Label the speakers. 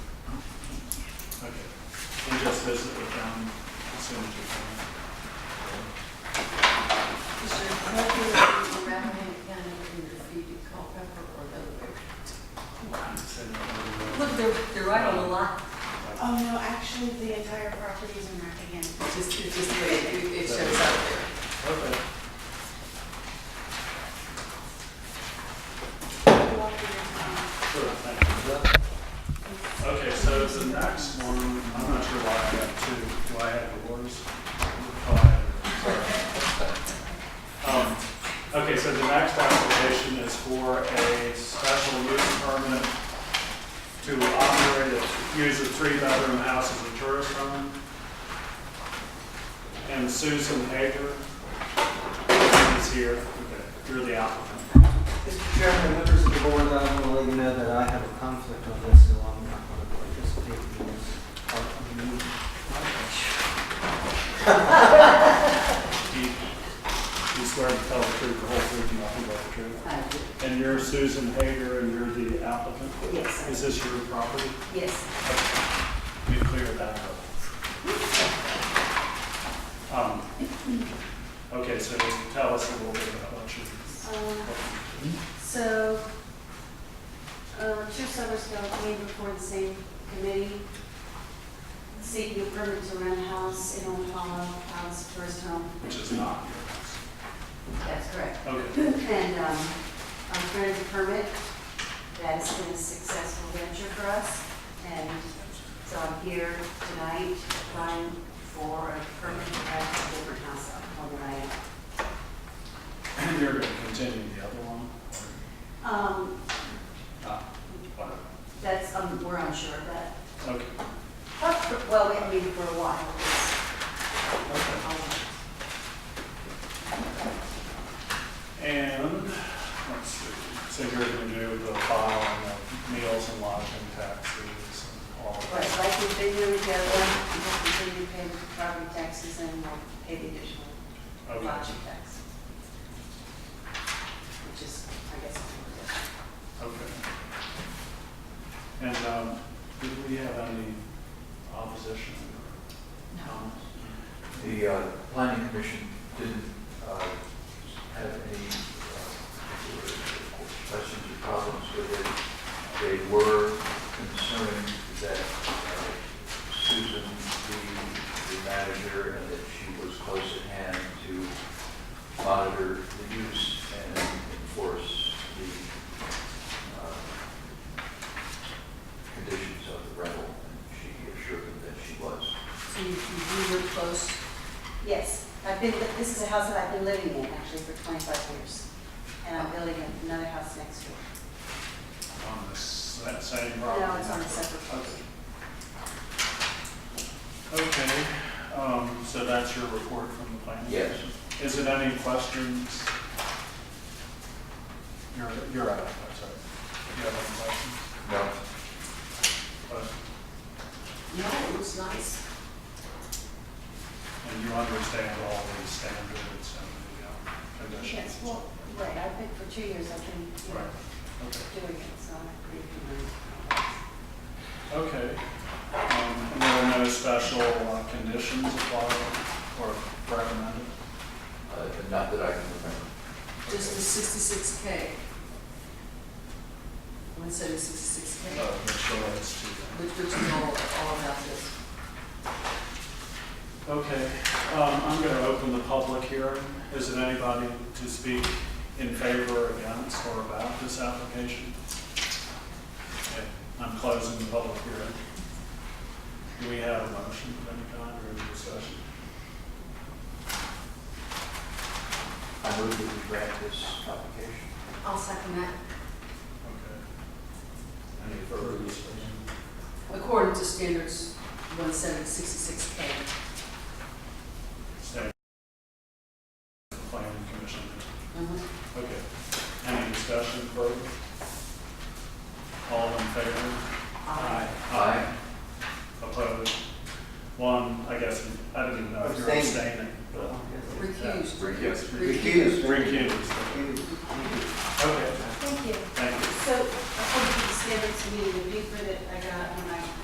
Speaker 1: Okay. And just visit with them as soon as you can.
Speaker 2: Is there probably around any kind of feet in Culpepper or the other way?
Speaker 1: I'd say no, no, no.
Speaker 2: Look, they're, they're right on the line.
Speaker 3: Oh, no, actually, the entire property is in Rockingham.
Speaker 2: It's just, it's just the way it it shows up there.
Speaker 1: Okay.
Speaker 3: You want me to,
Speaker 1: Sure, thank you. Okay, so the next one, I'm not sure why I have two, do I have yours? Oh, I have yours. Um, Okay, so the next application is for a special use permit to operate, a- use a three-bedroom house as a tourist home. And Susan Hager is here, Okay, you're the applicant.
Speaker 4: Mr. Chairman, members of the board, I want to let you know that I have a conflict on this, so I'm not going to participate in this part of the meeting.
Speaker 1: Do you do you swear to tell the truth, the whole truth, and nothing but the truth?
Speaker 2: I do.
Speaker 1: And you're Susan Hager, and you're the applicant?
Speaker 2: Yes,
Speaker 1: Is this your property?
Speaker 2: yes.
Speaker 1: We cleared that up. Um, Okay, so tell us a little bit about what you...
Speaker 3: um, So, uh, two summers ago, I came before the same committee, seeking a permit to rent a house in Old Hollow, house first home.
Speaker 1: Which is not your
Speaker 3: That's correct.
Speaker 1: house. Okay,
Speaker 3: And um, I'm granted a permit. That's been a successful venture for us. And so I'm here tonight applying for a permit to have a different house up on the right.
Speaker 1: and you're going to continue the other one?
Speaker 3: Um,
Speaker 1: Ah, wow.
Speaker 3: That's, um, we're unsure of that.
Speaker 1: Okay,
Speaker 3: Well, we haven't been for a while.
Speaker 1: okay. And, let's see, so you're gonna do the file and the meals and lodging taxes and all of
Speaker 3: Right,
Speaker 1: that.
Speaker 3: like we've been doing the other one, we'll continue to pay property taxes and we'll pay the additional
Speaker 1: Okay,
Speaker 3: lodging tax. Which is, I guess, what we're doing.
Speaker 1: okay. And, um, did we have any opposition? No.
Speaker 5: The uh, planning commission didn't uh, have any uh, questions or problems with it. They were concerned that uh, Susan, the the manager, and that she was close at hand to monitor the use and enforce the uh, conditions of the rental. And she assured them that she was.
Speaker 2: So you, you were close.
Speaker 3: Yes, I've been, this is a house that I've been living in actually for 25 years. And I'm building another house next door.
Speaker 1: On the s- that same property?
Speaker 3: No, it's on a separate property.
Speaker 1: Okay, um, so that's your report from the planning?
Speaker 5: Yes.
Speaker 1: commission? Is it any questions? You're, you're out, I'm sorry. Do you have any questions?
Speaker 5: No.
Speaker 1: Questions?
Speaker 2: No, it was nice.
Speaker 1: And you understand all these standards and the uh, conditions?
Speaker 3: Yes, well, right, I've been, for two years, I've been, you
Speaker 1: Right,
Speaker 3: know, doing it, so I'm pretty familiar.
Speaker 1: okay. Okay. Um, and There are no special uh, conditions applied or recommended?
Speaker 5: Uh, Not that I can remember.
Speaker 2: Just the sixty-six K. One seventy-six K,
Speaker 1: Uh, Make sure it's to
Speaker 2: which, which is all, all about this.
Speaker 1: Okay, um, I'm going to open the public hearing. Is it anybody to speak in favor, against, or about this application? Okay, I'm closing the public hearing. Do we have a motion of any kind or any discussion?
Speaker 5: I move that we grant this application.
Speaker 3: I'll second that.
Speaker 1: Okay.
Speaker 5: Any further discussion?
Speaker 2: According to standards one seven sixty-six K.
Speaker 1: State Planning Commission. Okay. Any discussion further? All in favor? Aye.
Speaker 5: Aye.
Speaker 1: Opposed? One, I guess, I didn't even know if you're
Speaker 4: Abstain.
Speaker 1: abstaining. but-
Speaker 2: Recused.
Speaker 5: Recused.
Speaker 2: Recused.
Speaker 1: Recused.
Speaker 4: Thank you.